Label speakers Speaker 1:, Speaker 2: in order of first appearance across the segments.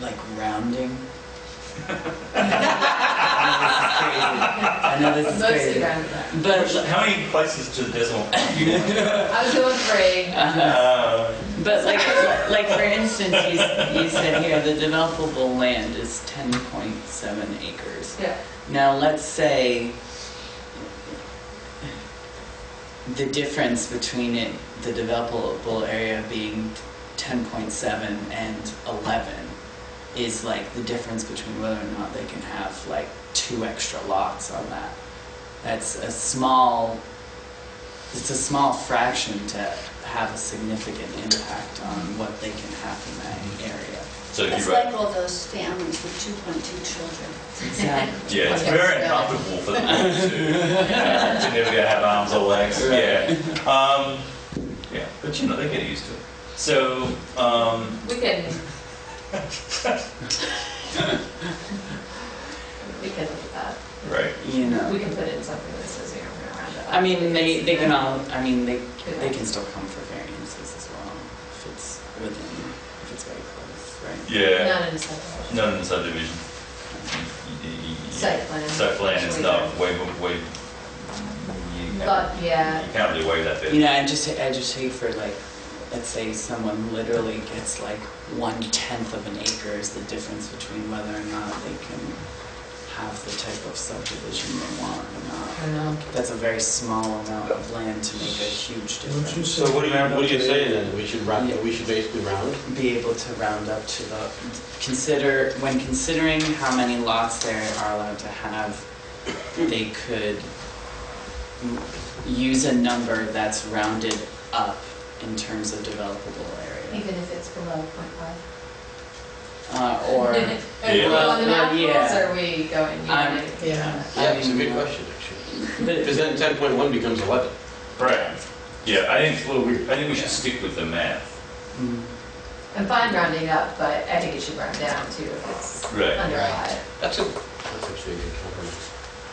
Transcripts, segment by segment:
Speaker 1: like rounding. I know this is
Speaker 2: Mostly
Speaker 1: crazy. I know
Speaker 2: round about.
Speaker 1: this is crazy.
Speaker 3: How many places to the decimal point you want?
Speaker 2: I was going three.
Speaker 1: But,
Speaker 3: Uh,
Speaker 1: but like, like for instance, you, s- you said here, the developable land is 10.7 acres.
Speaker 2: Yeah.
Speaker 1: Now, let's say the difference between it, the developable area being 10.7 and 11 is like the difference between whether or not they can have like two extra lots on that. That's a small, it's a small fraction to have a significant impact on what they can have in that area.
Speaker 3: So if
Speaker 4: It's
Speaker 3: you write,
Speaker 4: like all those families with 2.2 children.
Speaker 1: Exactly.
Speaker 3: yeah, it's
Speaker 2: Okay.
Speaker 3: very uncomfortable for them to, to never have arms or legs. Yeah. Um, yeah, but you know, they get used to it. So, um,
Speaker 2: We can. We can, uh,
Speaker 3: right.
Speaker 1: You know.
Speaker 2: we can put in something that says, you know, we're around it.
Speaker 1: I mean, they, they can all, I mean, they, they can still come for variances as well, if it's within, if it's very close, right?
Speaker 3: Yeah.
Speaker 2: Not in a subdivision.
Speaker 3: Not in the subdivision.
Speaker 2: Site plan.
Speaker 3: Site plan is not waive, waive.
Speaker 2: But, yeah,
Speaker 3: You can't really waive that bit.
Speaker 1: You know, I just, I just hate for like, let's say someone literally gets like one tenth of an acre is the difference between whether or not they can have the type of subdivision they want or
Speaker 2: I
Speaker 1: not.
Speaker 2: don't know.
Speaker 1: That's a very small amount of land to make a huge difference.
Speaker 5: So what do you, what do you say then? We should round, we should basically round?
Speaker 1: be able to round up to the, consider, when considering how many lots they are allowed to have, they could m- use a number that's rounded up in terms of developable area.
Speaker 2: Even if it's below point five.
Speaker 1: Uh, or,
Speaker 2: Are we
Speaker 1: Well,
Speaker 2: on the map rules,
Speaker 1: yeah.
Speaker 2: or are we going?
Speaker 1: Um,
Speaker 2: unit?
Speaker 1: yeah.
Speaker 5: Yeah, it's a good question, actually. Because
Speaker 1: but,
Speaker 5: then ten point one becomes eleven.
Speaker 3: Right. Yeah, I think, well, we, I think we should stick with the math.
Speaker 1: mm,
Speaker 2: I'm fine rounding up, but I think it should round down too if it's
Speaker 3: Right.
Speaker 2: under
Speaker 5: Right.
Speaker 2: five.
Speaker 5: That's a, that's actually a good compromise.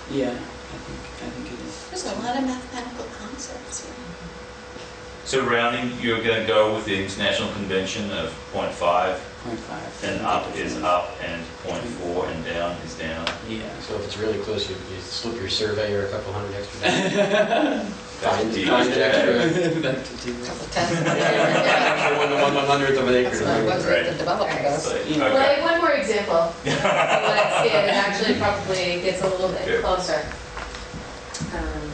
Speaker 1: yeah, I think, I think it is.
Speaker 4: There's a lot of mathematical concepts here.
Speaker 3: So rounding, you're gonna go with the international convention of point five,
Speaker 1: Point five.
Speaker 3: and up is up, and point four and down is down.
Speaker 1: Yeah.
Speaker 5: So if it's really close, you, you slip your surveyor a couple hundred extra. dollars.
Speaker 3: That's
Speaker 5: Find,
Speaker 3: deep.
Speaker 5: find an extra,
Speaker 1: Back to do that.
Speaker 4: Couple thousand.
Speaker 5: extra one, one one hundredth of an acre.
Speaker 4: That's
Speaker 5: to
Speaker 4: what it
Speaker 5: do
Speaker 4: was
Speaker 5: it.
Speaker 4: with the developer does.
Speaker 3: But-
Speaker 1: Yeah.
Speaker 2: Well, I
Speaker 3: okay.
Speaker 2: have one more example. You want to see it, it actually probably gets a little
Speaker 3: Okay.
Speaker 2: bit closer. Um,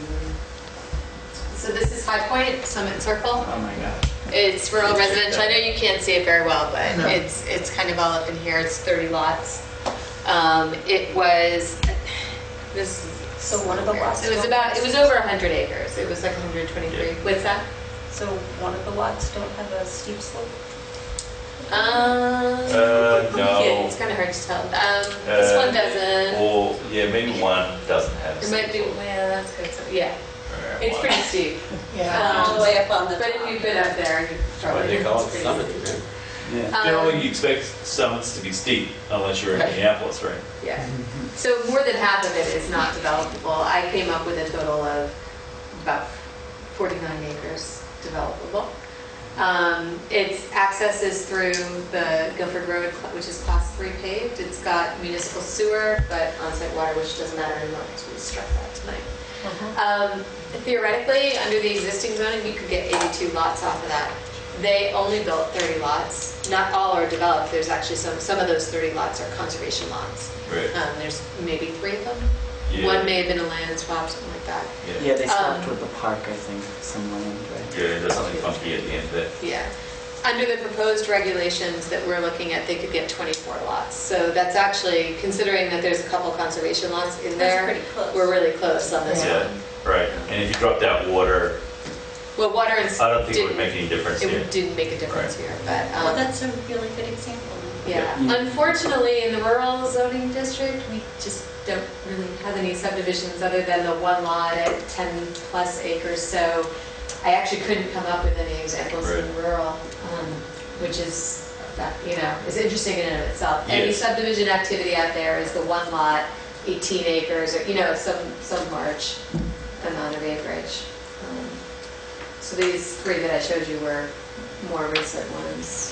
Speaker 2: So this is High Point, Summit Circle.
Speaker 1: Oh my gosh.
Speaker 2: It's rural residential. I know you can't see it very well, but
Speaker 1: No.
Speaker 2: it's, it's kind of all up in here. It's 30 lots. Um, It was, this is.
Speaker 4: So one of the lots-
Speaker 2: It was about, it was over 100 acres. It was like 123. What's that?
Speaker 4: So one of the lots don't have a steep slope?
Speaker 2: Um,
Speaker 3: Uh, no.
Speaker 2: yeah, It's kind of hard to tell. Um, This
Speaker 3: Uh,
Speaker 2: one doesn't.
Speaker 3: Or, yeah, maybe one doesn't have.
Speaker 2: It might be, well, that's good. So, Yeah,
Speaker 3: Alright,
Speaker 2: it's
Speaker 3: one.
Speaker 2: pretty steep.
Speaker 4: All the way up on the.
Speaker 2: But if you've been up there, you
Speaker 5: Why
Speaker 2: probably.
Speaker 5: they call it
Speaker 2: it's
Speaker 5: summit,
Speaker 2: pretty
Speaker 5: right?
Speaker 2: steep.
Speaker 1: Yeah.
Speaker 2: Um,
Speaker 3: Generally, you expect summits to be steep unless you're in Minneapolis, right?
Speaker 2: Yeah, so more than half of it is not developable. I came up with a total of about 49 acres developable. Um, Its access is through the Guilford Road, which is class three paved. It's got municipal sewer, but on-site water, which doesn't matter anymore because we struck that
Speaker 4: Uh-huh.
Speaker 2: tonight. Um, Theoretically, under the existing zoning, you could get 82 lots off of that. They only built 30 lots. Not all are developed. There's actually some, some of those 30 lots are conservation lots.
Speaker 3: Right.
Speaker 2: Um, there's maybe three of them.
Speaker 3: Yeah.
Speaker 2: One may have been a land swap, something like that.
Speaker 3: Yeah,
Speaker 1: Yeah, they stopped
Speaker 2: Um,
Speaker 1: with the park, I think, some land, right?
Speaker 3: Yeah, there's something funky at the end there.
Speaker 2: Yeah. Under the proposed regulations that we're looking at, they could get 24 lots. So that's actually, considering that there's a couple conservation lots in
Speaker 4: That's
Speaker 2: there,
Speaker 4: pretty close.
Speaker 2: we're really close on this
Speaker 3: Yeah,
Speaker 2: one.
Speaker 3: right. And if you dropped out water,
Speaker 2: Well, water and. s-
Speaker 3: I don't think it would
Speaker 2: didn't-
Speaker 3: make any difference
Speaker 2: It
Speaker 3: here.
Speaker 2: didn't make a difference here, but. um,
Speaker 4: Well, Oh, that's a really good example.
Speaker 2: Yeah,
Speaker 1: Yeah.
Speaker 2: unfortunately, in the rural zoning district, we just don't really have any subdivisions other than the one lot at 10 plus acres. So I actually couldn't come up with any examples in rural, um, which is, that you know, is interesting in and of itself. Any
Speaker 3: Yes.
Speaker 2: subdivision activity out there is the one lot, 18 acres, or, you know, some, some large amount of acreage. Um, So these three that I showed you were more recent ones.